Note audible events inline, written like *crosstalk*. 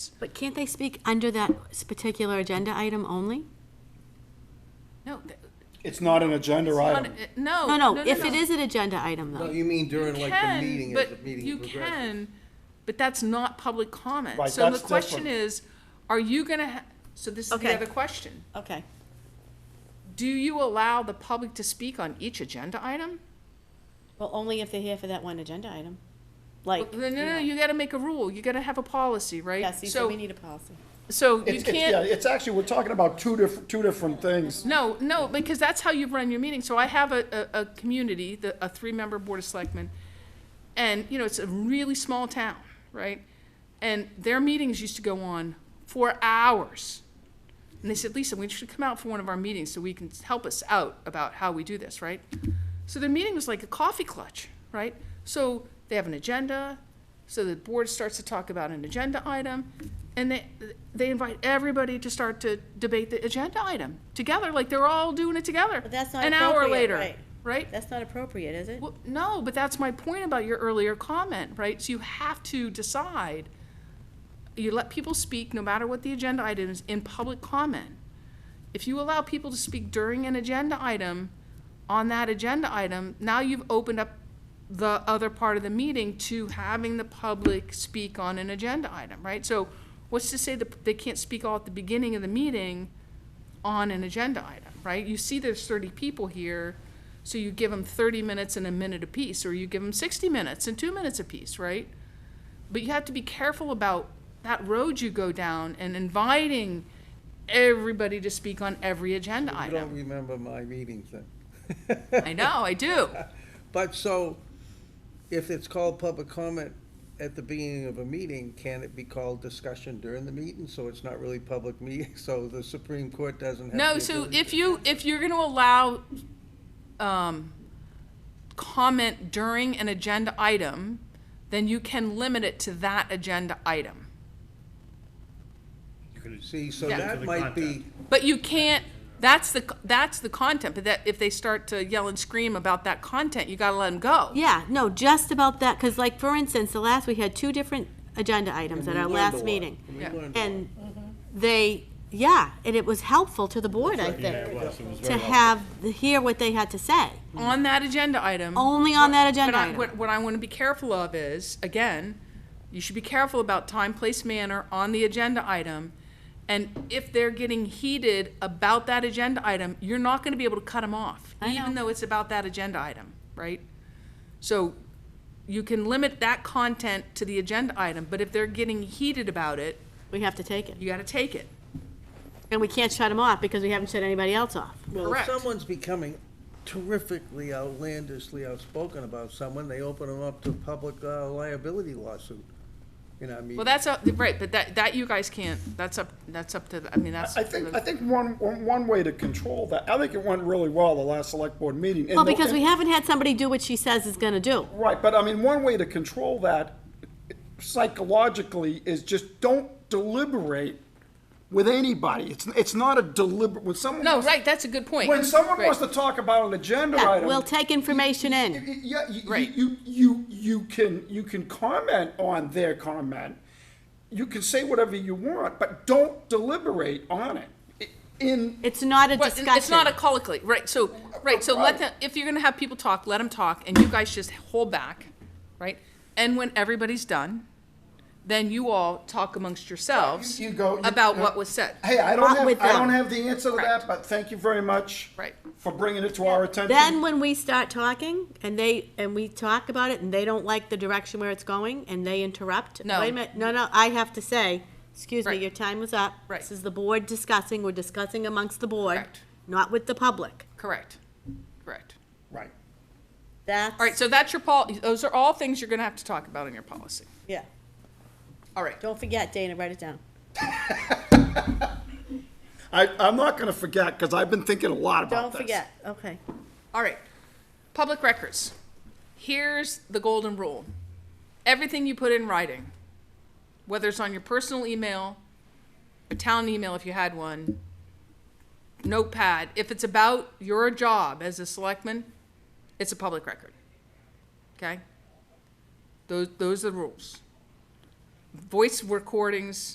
But can't they speak under that s- particular agenda item only? No, th- It's not an agenda Um, on- item. uh, no. No, Oh, no, if it is an agenda item, No, though. you mean during You like can, the meeting, as but the meeting you progresses. can, but that's not public comment. Right, So the that's question different. is, are you gonna, ha- so this is the Okay. other question. Okay. Do you allow the public to speak on each agenda item? Well, only if they're here for that one agenda item. Well, Like, No, no, no, you gotta make a rule, you gotta have a policy, right? yeah, see, so we need a policy. So you It's, it's, yeah, can't, it's actually, we're talking about two different, two different things. no, no, because that's how you run your meeting. So I have a, a, a community, the, a three-member board of selectmen, and, you know, it's a really small town, right? And their meetings used to go on for hours. And they said, Lisa, we should come out for one of our meetings so we can help us out about how we do this, right? So their meeting was like a coffee clutch, right? So they have an agenda, so the board starts to talk about an agenda item, and they, they invite everybody to start to debate the agenda item together, like they're all doing it together. But that's not An hour appropriate, later, right. Right? That's not appropriate, is it? Well, no, but that's my point about your earlier comment, right? So you have to decide. You let people speak, no matter what the agenda item is, in public comment. If you allow people to speak during an agenda item, on that agenda item, now you've opened up the other part of the meeting to having the public speak on an agenda item, right? So what's to say that they can't speak all at the beginning of the meeting on an agenda item, right? You see there's thirty people here, so you give them thirty minutes and a minute apiece, or you give them sixty minutes and two minutes apiece, right? But you have to be careful about that road you go down and inviting everybody to speak on every agenda You don't item. remember my meetings then. I know, I do. *laughs* But so, if it's called public comment at the beginning of a meeting, can it be called discussion during the meeting? So it's not really public meeting, *laughs* so the Supreme Court doesn't have. No, the so ability if to- you, if you're gonna allow, um, comment during an agenda item, then you can limit it to that agenda item. You could See, so Yeah. that might be, But you can't, that's the, that's the content, but that, if they start to yell and scream about that content, you gotta let them go. Yeah, no, just about that, because like, for instance, the last, we had two different agenda items at we our learned a last lot. meeting. we learned, And they, yeah, and it was helpful to the board, I think, to have, hear what they had to say, On that agenda item. only on that agenda But I- item. What, what I want to be careful of is, again, you should be careful about time, place, manner on the agenda item. And if they're getting heated about that agenda item, you're not going to be able to cut them off, I even know. though it's about that agenda item, right? So you can limit that content to the agenda item, but if they're getting heated about it, We have to take it. you got to take it. And we can't shut them off because we haven't shut anybody else off. well, if correct. someone's becoming terrifically outlandishly outspoken about someone, they open them up to public uh, liability lawsuit. You know, I mean. Well, that's, up- right, but that, that you guys can't, that's up, that's up to, the- I mean, that's. I think, I think one, one one way to control that, I think it went really well, the last select board meeting. and Well, the- because and- we haven't had somebody do what she says is gonna do. Right, but I mean, one way to control that psychologically is just don't deliberate with anybody. It's, it's not a deliberate, when someone. No, wants- right, that's a good point. When someone Right. wants to talk about an agenda Yeah, item. we'll take information in. Yeah, you, Right. you, you, you can, you can comment on their comment. You can say whatever you want, but don't deliberate on it. I- In, It's not a Well, it- discussion. It's not a colloquy, right, so, right, so let them, if you're gonna have people talk, let them talk, and you guys just hold back, right? And when everybody's done, then you all talk amongst yourselves You- you go- you- about you- what was said. hey, I don't Not have, with I them. don't have the answer to Correct. that, but thank you very much. Right. For bringing it to our attention. Then when we start talking and they, and we talk about it and they don't like the direction where it's going and they interrupt. No. Wait a minute, no, no, I have to say, excuse me, Right. your time was up. Right. This is the board discussing, we're discussing amongst the board, Correct. not with the public. Correct, correct. Right. That's. All right, so that's your pol, those are all things you're gonna have to talk about in your policy. Yeah, All right, don't forget, Dana, write it down. I, I'm not gonna forget, because I've been thinking a lot about Don't this. forget, okay. all right. Public records. Here's the golden rule. Everything you put in writing, whether it's on your personal email, a town email if you had one, notepad, if it's about your job as a selectman, it's a public record. Okay? Those, those are the rules. Voice recordings,